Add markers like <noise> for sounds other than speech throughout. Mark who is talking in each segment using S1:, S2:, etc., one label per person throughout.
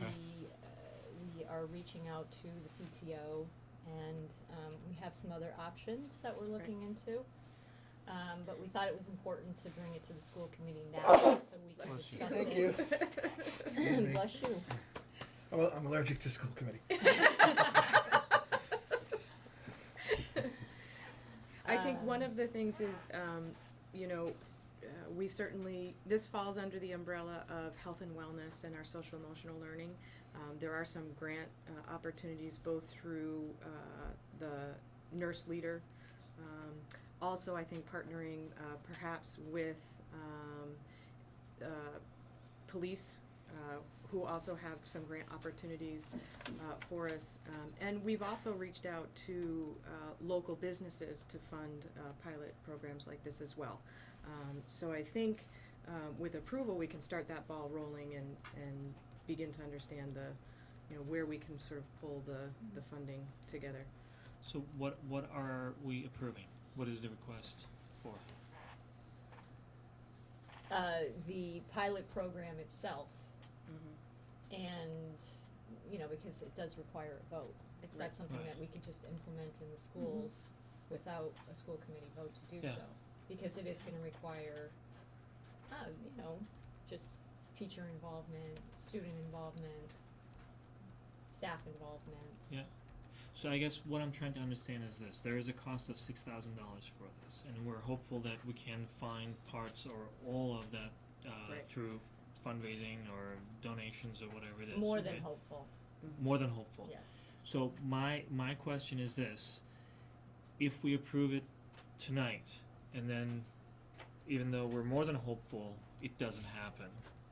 S1: uh, are reaching out to the PTO, and um, we have some other options that we're looking into. Um, But we thought it was important to bring it to the school committee
S2: <coughs>
S1: now, so we can
S3: Bless you.
S1: discuss
S2: Thank
S1: it.
S2: <laughs>
S3: Excuse me.
S1: <laughs> Bless you.
S3: I'm al- I'm allergic to school committee.
S2: <laughs> I think one
S1: Um,
S2: of the things is, um, you know, uh, we certainly, this falls under the umbrella of health and wellness and our social emotional learning. Um, there are some grant uh, opportunities both through uh, the nurse leader. Um, also, I think partnering uh, perhaps with um, uh, police uh, who also have some grant opportunities uh, for us. Um, and we've also reached out to uh, local businesses to fund uh, pilot programs like this as well. Um, so I think um, with approval, we can start that ball rolling and, and begin to understand the, you know, where we can sort of pull the, the funding together.
S4: So what what are we approving? What is the request for?
S1: uh, the pilot program itself.
S2: Mm-hmm.
S1: And, you know, because it does require a vote. It's not
S2: Right.
S1: something
S4: Right. Mm-hmm.
S1: that we could just implement in the schools without a school committee vote to do
S4: Yeah.
S1: so. Because it is gonna require, uh, you know, just teacher involvement, student involvement, staff involvement.
S4: So I guess what I'm trying to understand is this: there is a cost of six thousand dollars for this, and we're hopeful that we can find parts or all of that uh,
S2: Right.
S4: through fundraising or donations or whatever it is.
S1: More than
S4: right?
S1: hopeful,
S2: Mm-hmm.
S4: more than hopeful.
S1: yes.
S4: So my my question is this: if we approve it tonight, and then even though we're more than hopeful, it doesn't happen,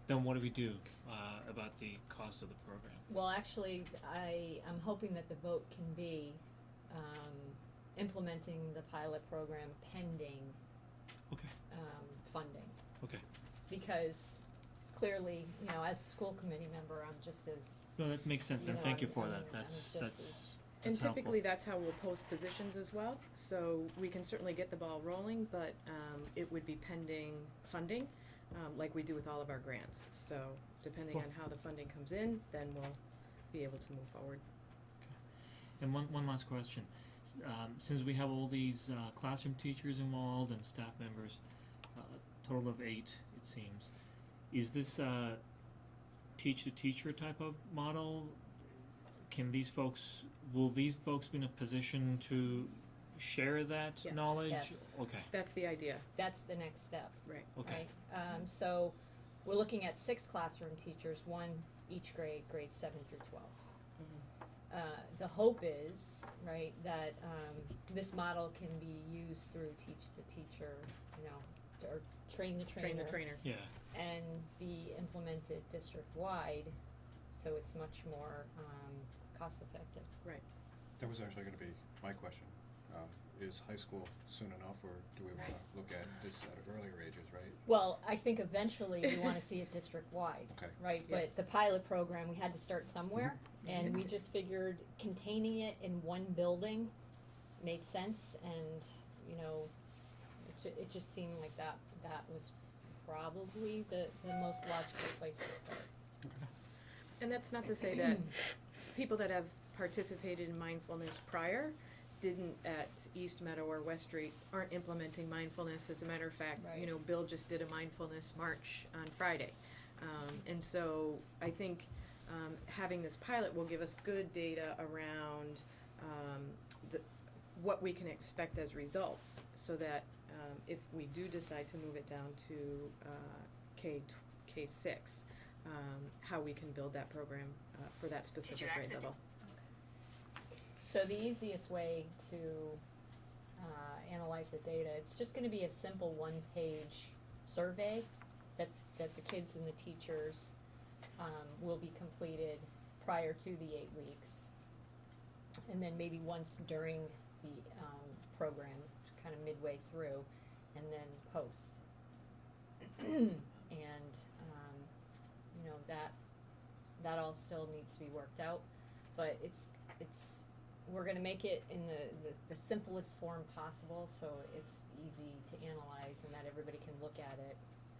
S4: then what do we do uh, about the cost of the program?
S1: Well, actually, I, I'm hoping that the vote can be, um, implementing the pilot program pending.
S4: Okay.
S1: Um, funding.
S4: Okay.
S1: Because clearly, you know, as a school committee member, I'm just as,
S4: No, that makes sense,
S1: you
S4: and
S1: know,
S4: thank you
S1: I'm-
S4: for
S1: I'm-
S4: that.
S1: I'm
S4: That's
S1: just
S4: that's
S1: as-
S2: And
S4: that's helpful.
S2: typically, that's how we'll post positions as well, so we can certainly get the ball rolling, but um, it would be pending funding, um, like we do with all of our grants. So depending
S4: Cool.
S2: on how the funding comes in, then we'll be able to move forward.
S4: And one one last question, S- um, since we have all these uh, classroom teachers involved and staff members, uh, a total of eight it seems, is this a teach the teacher type of model? Can these folks will these folks be in a position to share that
S2: Yes.
S4: knowledge?
S1: Yes.
S4: Okay,
S2: That's the idea.
S1: that's the next step,
S4: okay,
S1: right? Um, so, we're looking at six classroom teachers, one each grade, grade seven through twelve. uh, the hope is, right, that um, this model can be used through teach the teacher, you know, t- or train the trainer,
S2: Train the trainer.
S4: yeah,
S1: and be implemented district wide, so it's much more um, cost effective.
S5: That was actually gonna be my question. Um, is high school soon enough, or do we wanna look at this at earlier ages, right?
S1: Well, I think eventually we want to see it district wide,
S5: Okay.
S1: right?
S2: Yes.
S1: But the pilot program, we had to start somewhere, and we just figured containing it in one building made sense, and you know, it, ju- it just seemed like that that was probably the, the most logical place to start.
S2: And that's not to say that people that have participated in mindfulness prior didn't at East Meadow or West Street aren't implementing mindfulness. As a matter of fact, you
S1: Right.
S2: know, Bill just did a mindfulness march on Friday. Um, and so I think um, having this pilot will give us good data around um, the, what we can expect as results so that um, if we do decide to move it down to uh, K, tw- K6, um, how we can build that program uh, for that specific grade
S6: exit?
S2: level.
S1: So the easiest way to uh, analyze the data, it's just gonna be a simple one-page survey that, that the kids and the teachers um, will be completed prior to the eight weeks. And then maybe once during the um, program, kind of midway through, and then post. And, um, you know, that, that all still needs to be worked out, but it's, it's we're gonna make it in the, the, the simplest form possible, so it's easy to analyze and that everybody can look at it,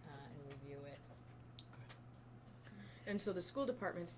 S1: uh, and review it.
S2: And so the school department's